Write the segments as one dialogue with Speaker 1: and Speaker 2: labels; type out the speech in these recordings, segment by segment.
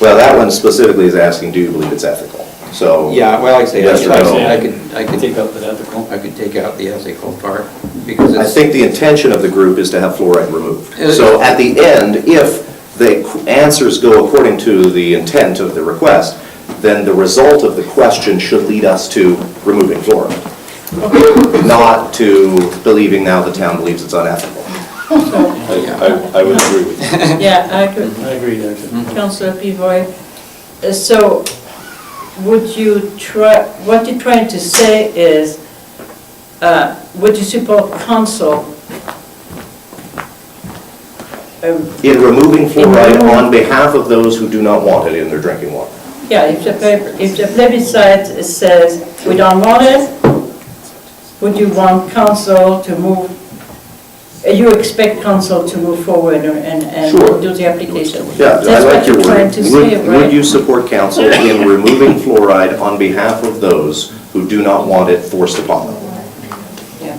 Speaker 1: Well, that one specifically is asking, do you believe it's ethical? So.
Speaker 2: Yeah, well, like I say, I
Speaker 1: Yes or no?
Speaker 2: I could, I could,
Speaker 3: Take out the ethical.
Speaker 2: I could take out the ethical part, because
Speaker 1: I
Speaker 2: it's... Uh,
Speaker 1: think the intention of the group is to have fluoride removed.
Speaker 2: It-
Speaker 1: So at the end, if the qu- answers go according to the intent of the request, then the result of the question should lead us to removing fluoride, not to believing now the town believes it's unethical.
Speaker 4: I, I I would agree with you.
Speaker 5: Yeah, I could,
Speaker 3: I agree there too.
Speaker 5: Councillor Pivoy. Uh, So would you try, what you're trying to say is, uh, would you support council? Um,
Speaker 1: In removing fluoride on behalf of those who do not want it in their drinking water.
Speaker 5: Yeah, if the, pleb- if the plebiscite says we don't want it, would you want council to move, uh, you expect council to move forward and, and
Speaker 1: Sure.
Speaker 5: do the application?
Speaker 1: Yeah, I
Speaker 5: That's
Speaker 1: like your
Speaker 5: what you're
Speaker 1: word.
Speaker 5: trying to
Speaker 1: Would-
Speaker 5: say,
Speaker 1: Would
Speaker 5: right?
Speaker 1: you support council in removing fluoride on behalf of those who do not want it forced upon them?
Speaker 5: Yeah.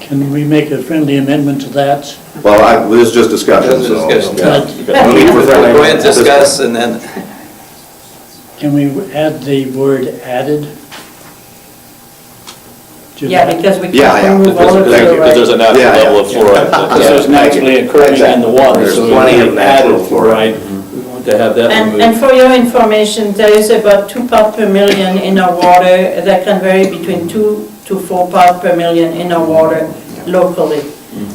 Speaker 6: Can we make a friendly amendment to that?
Speaker 1: Well, I, this is just discussion,
Speaker 2: Just
Speaker 1: so.
Speaker 2: discussion.
Speaker 1: yeah.
Speaker 4: Okay.
Speaker 1: No need for friendly
Speaker 2: Go ahead,
Speaker 1: amendment.
Speaker 2: discuss, and then,
Speaker 6: Can we add the word added? to
Speaker 5: Yeah,
Speaker 6: that?
Speaker 5: because we
Speaker 1: Yeah, yeah,
Speaker 5: can't remove all of
Speaker 1: because- thank
Speaker 5: the
Speaker 1: you,
Speaker 4: Because there's a
Speaker 5: right.
Speaker 4: natural
Speaker 1: Yeah, yeah.
Speaker 4: level of fluoride. that-
Speaker 3: Because there's naturally occurring in the water,
Speaker 1: There's
Speaker 3: so
Speaker 1: plenty of
Speaker 3: we added
Speaker 1: natural fluoride.
Speaker 3: fluoride. We want to have that
Speaker 5: And, and
Speaker 3: removed.
Speaker 5: for your information, there is about two part per million in our water, that can vary between two to four part per million in our water locally.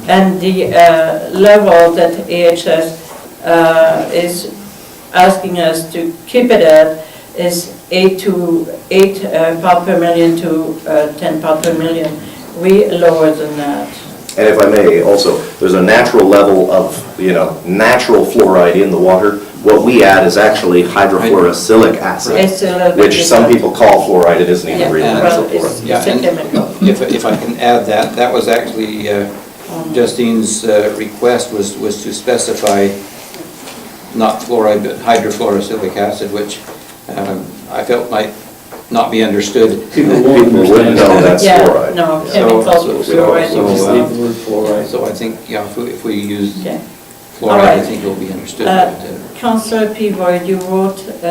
Speaker 5: And the uh, level that AHS uh, is asking us to keep it at is eight to, eight uh, part per million to uh, 10 part per million. We lower than that.
Speaker 1: And if I may, also, there's a natural level of, you know, natural fluoride in the water. What we add is actually hydrofluorosilic
Speaker 5: It's
Speaker 1: acid,
Speaker 5: a little bit
Speaker 1: which some
Speaker 5: different.
Speaker 1: people call fluoride, it isn't even
Speaker 5: Yeah,
Speaker 1: real
Speaker 2: and-
Speaker 1: natural
Speaker 5: well, it's
Speaker 1: fluoride.
Speaker 2: Yeah,
Speaker 5: it's a
Speaker 2: and-
Speaker 5: chemical.
Speaker 2: if, if I can add that, that was actually, uh,
Speaker 5: Um,
Speaker 2: Justine's uh, request was, was to specify not fluoride, but hydrofluorosilic acid, which um, I felt might not be understood.
Speaker 3: People won't
Speaker 1: People wouldn't
Speaker 3: understand.
Speaker 1: know that's
Speaker 5: Yeah,
Speaker 1: fluoride.
Speaker 5: no,
Speaker 1: Yeah.
Speaker 5: chemical
Speaker 2: So- so-
Speaker 5: fluoride.
Speaker 2: so,
Speaker 3: Just
Speaker 2: uh,
Speaker 3: leave the word fluoride.
Speaker 2: So I think, yeah, if we- if we use
Speaker 5: Okay.
Speaker 2: fluoride, I
Speaker 5: Alright.
Speaker 2: think it'll be understood.
Speaker 5: Uh,
Speaker 2: but, uh,
Speaker 5: Councillor Pivoy, you wrote uh,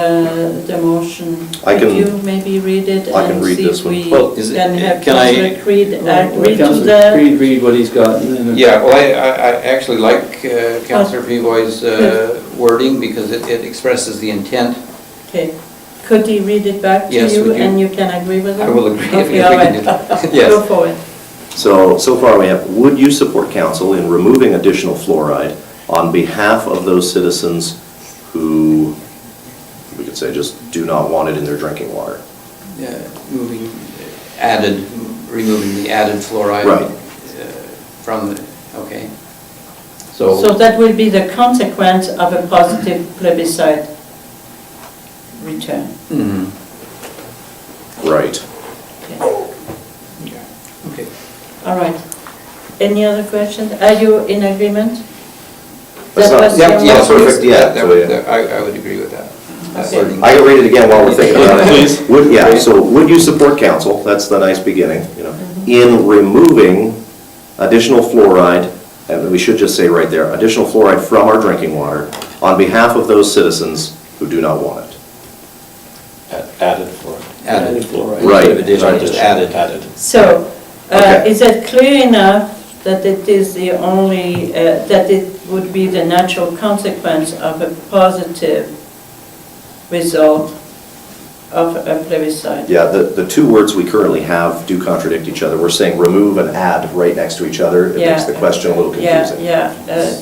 Speaker 5: the motion.
Speaker 1: I
Speaker 5: Could
Speaker 1: can-
Speaker 5: you maybe read it
Speaker 1: I can
Speaker 5: and
Speaker 1: read
Speaker 5: see
Speaker 1: this
Speaker 5: if
Speaker 1: one.
Speaker 5: we
Speaker 2: Well, is it-
Speaker 5: can have
Speaker 2: can I- Oh,
Speaker 5: Councillor Creed add
Speaker 3: Let
Speaker 5: read to
Speaker 3: Councilor
Speaker 5: the...
Speaker 3: Creed read what he's got. and then-
Speaker 2: Yeah, well, I, I I actually like uh, Councillor Pivoy's uh, wording because it it expresses the intent.
Speaker 5: Okay. Could he read it back to
Speaker 2: Yes,
Speaker 5: you
Speaker 2: would you-
Speaker 5: and you can agree with it?
Speaker 2: I will agree if- if we
Speaker 5: Okay, all
Speaker 2: can do
Speaker 5: right.
Speaker 2: that.
Speaker 5: Go
Speaker 2: Yes.
Speaker 5: for it.
Speaker 1: So, so far we have, would you support council in removing additional fluoride on behalf of those citizens who, we could say, just do not want it in their drinking water?
Speaker 2: Yeah, uh, Moving, added, removing the added fluoride.
Speaker 1: Right.
Speaker 2: uh, From the, okay.
Speaker 5: So
Speaker 2: So,
Speaker 5: that will be the consequence of a positive plebiscite return.
Speaker 2: Mhm.
Speaker 1: Right.
Speaker 5: Okay.
Speaker 2: Yeah. okay.
Speaker 5: All right. Any other questions? Are you in agreement?
Speaker 1: That's
Speaker 5: That
Speaker 1: not-
Speaker 5: was
Speaker 1: Yeah,
Speaker 5: your
Speaker 1: yeah,
Speaker 5: motion?
Speaker 1: perfect. yeah,
Speaker 2: That- that
Speaker 1: so,
Speaker 2: would-
Speaker 1: yeah.
Speaker 2: I, I would agree with that. that.
Speaker 5: Okay.
Speaker 2: wording.
Speaker 1: I can read it again while we're thinking about it.
Speaker 4: Please.
Speaker 1: Would, yeah, so would you support council, that's the nice beginning, you know, in removing additional fluoride, and we should just say right there, additional fluoride from our drinking water on behalf of those citizens who do not want it?
Speaker 4: Add- Added fluoride.
Speaker 2: Added.
Speaker 3: Added fluoride.
Speaker 1: Right.
Speaker 2: Instead of additional, just added.
Speaker 4: Added.
Speaker 5: So, uh,
Speaker 1: Okay.
Speaker 5: is it clear enough that it is the only, uh, that it would be the natural consequence of a positive result of a plebiscite?
Speaker 1: Yeah, the, the two words we currently have do contradict each other. We're saying remove and add right next to each other. It makes the
Speaker 5: Yeah.
Speaker 1: question a little
Speaker 5: Yeah,
Speaker 1: confusing.
Speaker 5: yeah, uh,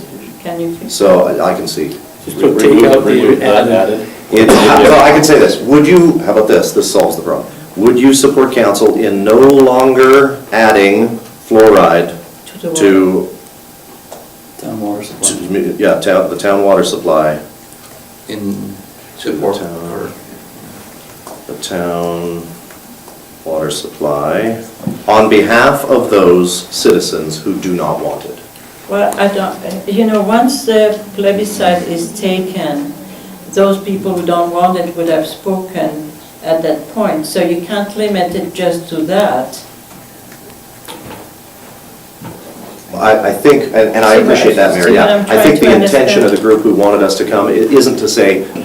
Speaker 5: can you fix?
Speaker 1: So I I can see.
Speaker 3: Just put take out
Speaker 4: Remove,
Speaker 3: the
Speaker 4: not
Speaker 3: added.
Speaker 4: added.
Speaker 1: It's, well, I can say this, would you, how about this, this solves the problem. Would you support council in no longer adding fluoride
Speaker 5: To the water?
Speaker 1: to,
Speaker 3: Town water supply.
Speaker 1: to- yeah, town, the town water supply,
Speaker 2: In
Speaker 1: To the
Speaker 2: support
Speaker 1: town.
Speaker 2: or
Speaker 1: the town water supply, on behalf of those citizens who do not want it?
Speaker 5: Well, I don't, uh, you know, once the plebiscite is taken, those people who don't want it would have spoken at that point, so you can't limit it just to that.
Speaker 1: I, I think, and and I
Speaker 5: See what-
Speaker 1: appreciate that,
Speaker 5: see
Speaker 1: Mary,
Speaker 5: what
Speaker 1: yeah.
Speaker 5: I'm
Speaker 1: I think
Speaker 5: trying
Speaker 1: the
Speaker 5: to
Speaker 1: intention of
Speaker 5: understand?
Speaker 1: the group who wanted us to come i- isn't to say,